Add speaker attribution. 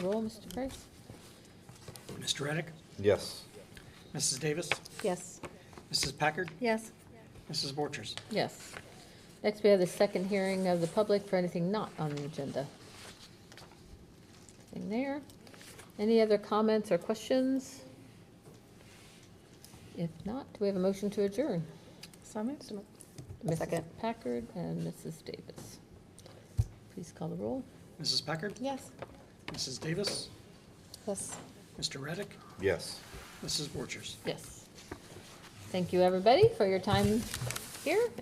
Speaker 1: Roll, Mr. Price?
Speaker 2: Mr. Reddick,
Speaker 3: Yes.
Speaker 2: Mrs. Davis,
Speaker 1: Yes.
Speaker 2: Mrs. Packard,
Speaker 4: Yes.
Speaker 2: Mrs. Borchers.
Speaker 1: Yes. Next, we have the second hearing of the public for anything not on the agenda. Nothing there. Any other comments or questions? If not, do we have a motion to adjourn?
Speaker 4: So moved.
Speaker 1: Mrs.
Speaker 4: Second.
Speaker 1: Packard and Mrs. Davis. Please call the roll.
Speaker 2: Mrs. Packard,
Speaker 4: Yes.
Speaker 2: Mrs. Davis,
Speaker 4: Yes.
Speaker 2: Mr. Reddick,
Speaker 3: Yes.
Speaker 2: Mrs. Borchers.
Speaker 1: Yes. Thank you, everybody, for your time here.